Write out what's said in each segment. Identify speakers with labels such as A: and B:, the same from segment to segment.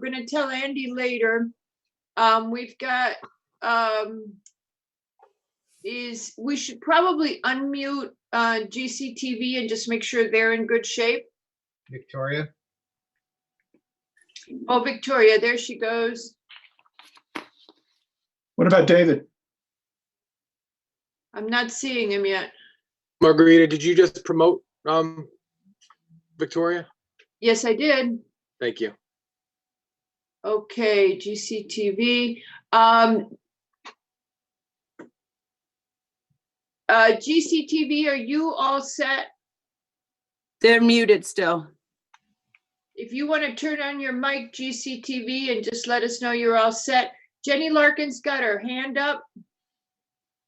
A: we're gonna tell Andy later. Um, we've got, um, is, we should probably unmute, uh, GCTV and just make sure they're in good shape.
B: Victoria?
A: Oh, Victoria, there she goes.
C: What about David?
A: I'm not seeing him yet.
D: Margarita, did you just promote um Victoria?
A: Yes, I did.
D: Thank you.
A: Okay, GCTV. Um, uh, GCTV, are you all set?
E: They're muted still.
A: If you want to turn on your mic, GCTV, and just let us know you're all set. Jenny Larkin's got her hand up.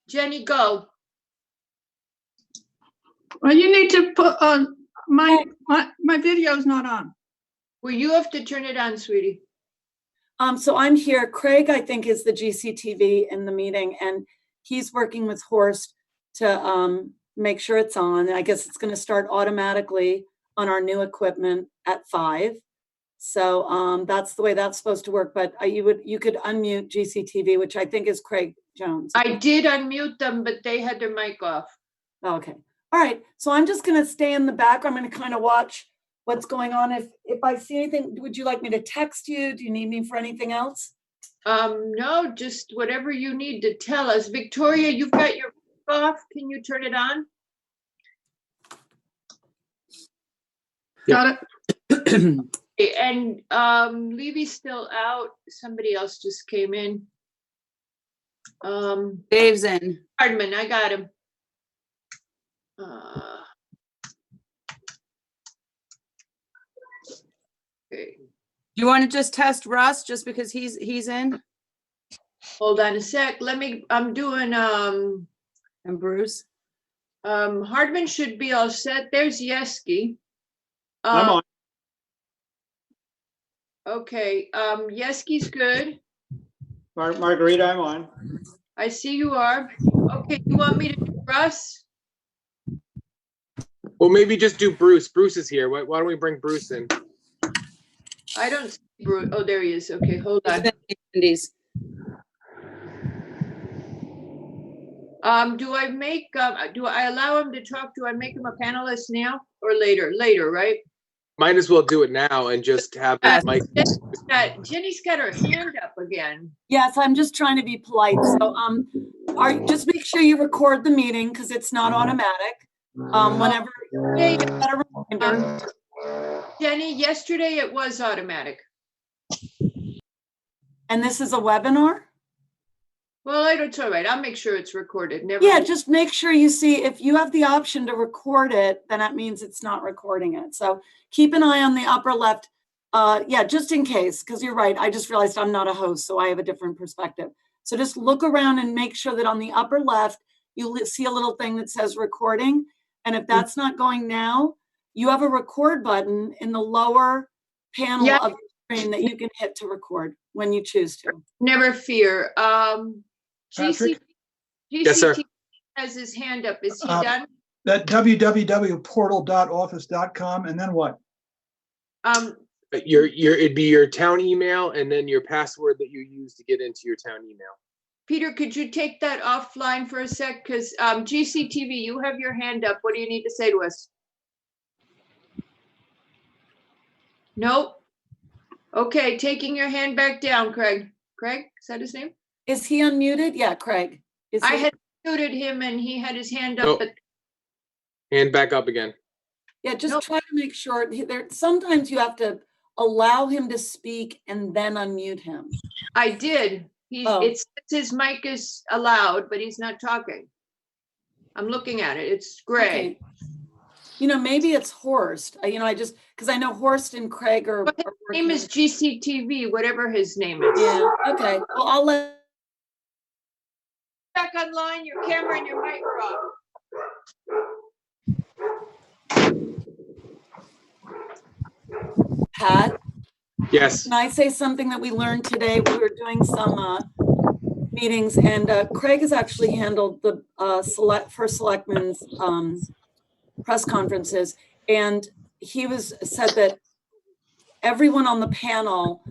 A: Jenny, go.
F: Well, you need to put on, my, my, my video's not on.
A: Oh. Well, you have to turn it on, sweetie.
E: Um, so I'm here. Craig, I think, is the GCTV in the meeting, and he's working with Horst to um, make sure it's on. I guess it's going to start automatically on our new equipment at five. So um, that's the way that's supposed to work. But uh, you would you could unmute GCTV, which I think is Craig Jones.
A: I did unmute them, but they had their mic off.
E: Oh, Okay, all right, so I'm just gonna stay in the back, I'm gonna kind of watch what's going on. If, if I see anything, would you like me to text you? Do you need me for anything else?
A: Um, no, just whatever you need to tell us. Victoria, you've got your mic off. Can you turn it on?
F: Got it?
A: Okay, And um, Levy's still out. Somebody else just came in. Um,
G: Dave's in.
A: Hardman, I got him. Uh, Okay,
G: You want to just test Russ just because he's, he's in
A: hold on a sec. Let me, I'm doing, um,
G: and Bruce?
A: um, Hardman should be all set. There's Yeski.
C: I'm
A: Uh,
C: on.
A: Okay, um, Yeski's good.
C: Mar- Margarita, I'm on.
A: I see you are. Okay, you want me to, do Russ?
D: Well, maybe just do Bruce. Bruce is here. Why, why don't we bring Bruce in?
A: I don't see Bruce. Oh, there he is. Okay, hold
G: He's
A: on.
G: in the Indies.
A: Um, do I make, um, do I allow him to talk? Do I make him a panelist now or later? Later, right?
D: Might as well do it now and just have that mic.
A: Got- Jenny's got her hand up again.
E: Yes, I'm just trying to be polite, so, um, are, just make sure you record the meeting, because it's not automatic. Um, whenever,
A: Hey,
E: better reminder.
A: um, Jenny, yesterday it was automatic.
E: and this is a webinar?
A: Well, I don't, it's all right. I'll make sure it's recorded. Never.
E: Yeah,
A: mind.
E: just make sure you see, if you have the option to record it, then that means it's not recording it. So keep an eye on the upper left. Uh, yeah, just in case, because you're right. I just realized I'm not a host, so I have a different perspective. So just look around and make sure that on the upper left, you li- see a little thing that says recording. And if that's not going now, you have a record button in the lower panel
A: Yeah.
E: of the screen that you can hit to record when you choose to.
A: Never fear. Um, GC.
C: Patrick?
D: Yes, sir.
A: GCT Has his hand up. Is he
C: Uh,
A: done?
C: That www.portal.office.com and then what?
A: Um,
D: But Your, your, it'd be your town email and then your password that you use to get into your town email.
A: Peter, could you take that offline for a sec? Because, um, GCTV, you have your hand up. What do you need to say to us? Nope. Okay, taking your hand back down, Craig. Craig, is that his name?
E: Is he unmuted? Yeah, Craig. Is
A: I
E: he-
A: had muted him and he had his hand
D: Nope.
A: up, but
D: And back up again.
E: Yeah,
A: No.
E: just try to make sure he- there, sometimes you have to allow him to speak and then unmute him.
A: I did. He,
E: Oh.
A: it's, his mic is allowed, but he's not talking. I'm looking at it. It's gray.
E: Okay. You know, maybe it's Horst. I- You know, I just, because I know Horst and Craig are.
A: But
E: are
A: Name
E: working-
A: is GCTV, whatever his name is.
E: Yeah, okay. Well, I'll let,
A: Back online, your camera and your mic are off.
E: Pat.
D: Yes.
E: Can I say something that we learned today? We were doing some uh, meetings and uh, Craig has actually handled the uh, select, first selectmen's um, press conferences. And he was, said that everyone on the panel